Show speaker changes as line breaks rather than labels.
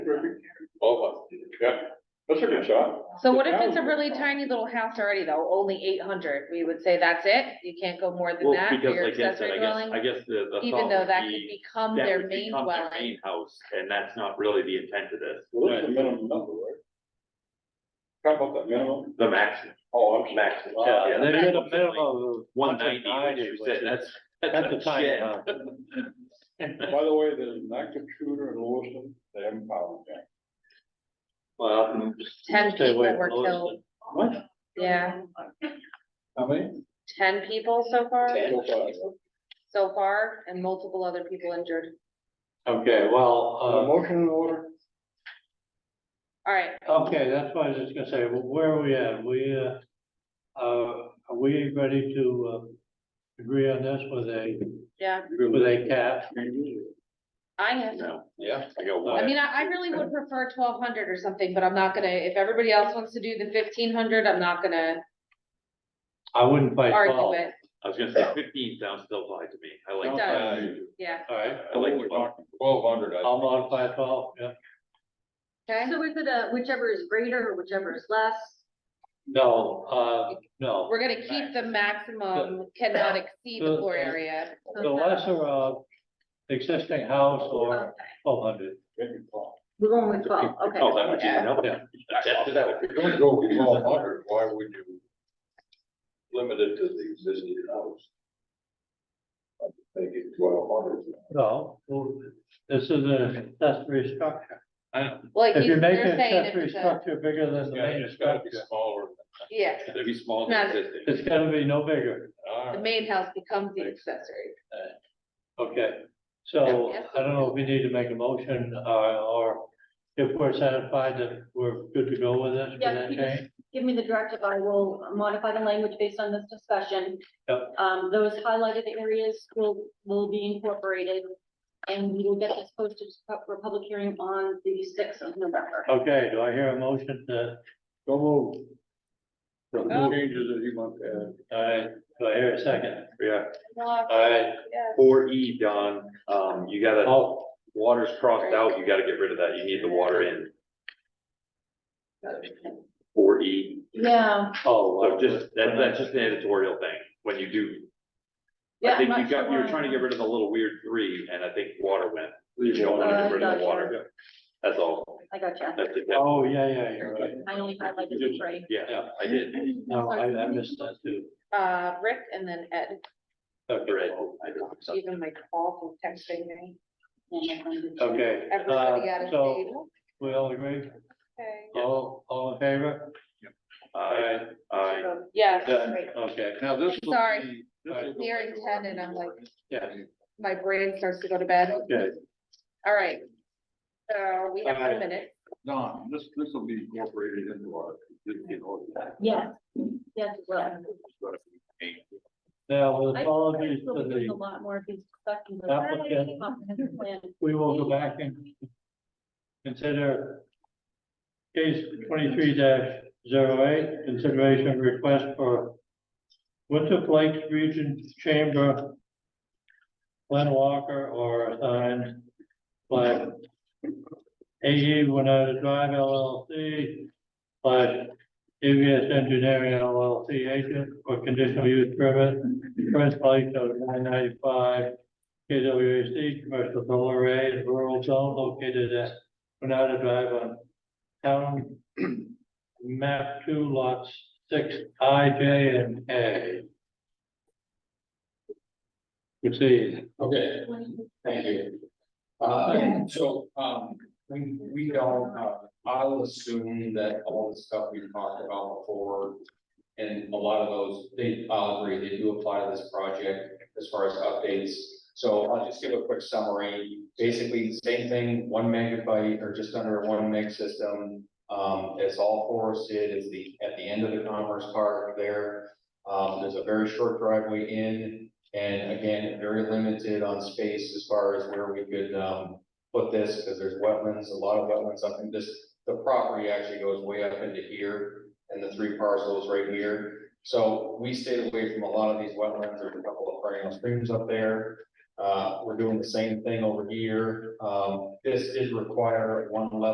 iron shop.
So what if it's a really tiny little house already though, only eight hundred, we would say that's it, you can't go more than
Well,
that for
because
your
like I said, I
accessory
guess, I
dwelling?
guess the, the
Even
thought
though
would
that could
be,
become
that
their
would
main
become their
dwelling,
main house, and that's not really the intent of this,
Well, that's the minimum number, right? How about that minimum?
the maximum,
Oh, I'm.
maximum.
Yeah,
Yeah, they did a minimum
like
of
One ninety, which
190,
you
which
said,
is-
that's,
That's a
that's
tiny
shit.
house.
Uh, By the way, there's an active shooter in Lewiston, they haven't found him.
Well, mm,
ten
Stay away
people were
from those.
killed,
What?
yeah,
How many?
ten people so far,
So far.
so far, and multiple other people injured.
Okay,
A
well, uh,
motion in order?
Alright,
uh, okay, that's what I was just gonna say, Well, where are we at? We, uh, uh, are we ready to, uh, agree on this with a,
yeah,
with a cap?
I have,
no,
Yeah.
I got
I
one,
mean, I, I really would prefer twelve hundred or something, but I'm not gonna, if everybody else wants to do the fifteen hundred, I'm not gonna
I wouldn't fight
argue
Paul.
it,
I was gonna say fifteen sounds still high to me, I
It
like.
does.
that.
yeah,
All right,
I like the box.
Uh, Twelve hundred.
I'll modify Paul, yeah.
okay?
So is it a whichever is greater, whichever is less?
No, uh, no.
We're gonna keep the maximum cannot exceed the floor area.
The lesser of existing house or twelve hundred.
We're going with twelve, okay.
Oh, that would be another.
Yeah.
That's-
If you're gonna go with twelve hundred, why would you limit it to the existing house? I'd Make it twelve hundred.
No, well, this is an accessory structure.
Like
If
you-
you make
they're
an
saying, if
accessory
it's a,
structure bigger than the main
It's gotta be
structure,
smaller.
yeah,
It'd be smaller
Not-
than existing.
it's gotta be no bigger,
All
the
right.
main house becomes the accessory.
okay? So
Yes.
I don't know if we need to make a motion or, or if we're satisfied that we're good to go with this for
Yeah,
that
you just-
change.
Give me the directive, I will modify the language based on this discussion.
Yep.
Um, those highlighted areas will, will be incorporated. And we will get this posted for a public hearing on the sixth of November.
Okay, do I hear a motion to,
Go move. The Changes that you want to add.
all right, uh, do I hear a second?
Yeah,
All right,
four E, Don, um, you gotta,
oh,
water's crossed out, you gotta get rid of that, you need the water in. Four E.
Yeah,
oh.
So uh, just, that, that's just an editorial thing, when you do,
yeah.
I think you got, you were trying to get rid of the little weird three, and I think water went. You don't wanna
Uh,
get rid of the
gotcha.
water, that's all,
I got you.
that's it, That-
Oh, yeah, yeah, you're right.
I only highlighted the three.
yeah, I did.
No, I, I missed that too.
Uh, Rick and then Ed,
Okay,
Right. I did. So-
even my call from texting me,
okay, uh,
everybody got a
so
table.
we all agree?
Okay.
All, all in favor? All
I,
right,
I,
Yes,
done, okay,
Now this. will
Sorry.
be- this will go
Near
back to
intent,
our
and I'm like-
ordinance.
yeah,
my brain starts to go to bed,
okay.
alright. So we have a
Alright.
minute,
Don, this, this will be incorporated into our. existing ordinance.
Yes, yes, it will.
Now, with
I-
apologies to
We'll be doing A
the,
lot more of these discussions.
Applicant.
Comprehensive plan.
we will go back and consider case twenty-three 8 consideration request for Winter Lake Region Chamber, Glenn Walker or assigned by AE Winona Drive LLC by AVS Engineering LLC agent for conditional use permit, current place of nine ninety-five KWAC commercial solar array in rural zone located at oh Renata Drive on town map two lots six I, J, and K. Proceed.
Okay, thank you. Uh, so, um, we, we don't, uh, I'll assume that all the stuff we've talked about before. And a lot of those, they, I'll agree, they do apply to this project as far as updates. So I'll just give a quick summary, basically the same thing, one megabyte or just under one meg system. Um, it's all forested, it's the, at the end of the Commerce Park there. Um, there's a very short driveway in, and again, very limited on space as far as where we could, um, put this, because there's wetlands, a lot of wetlands up in this. The property actually goes way up into here and the three parcels right here. So we stayed away from a lot of these wetlands. There's a couple of perennial streams up there. Uh, we're doing the same thing over here. Um, this did require one level.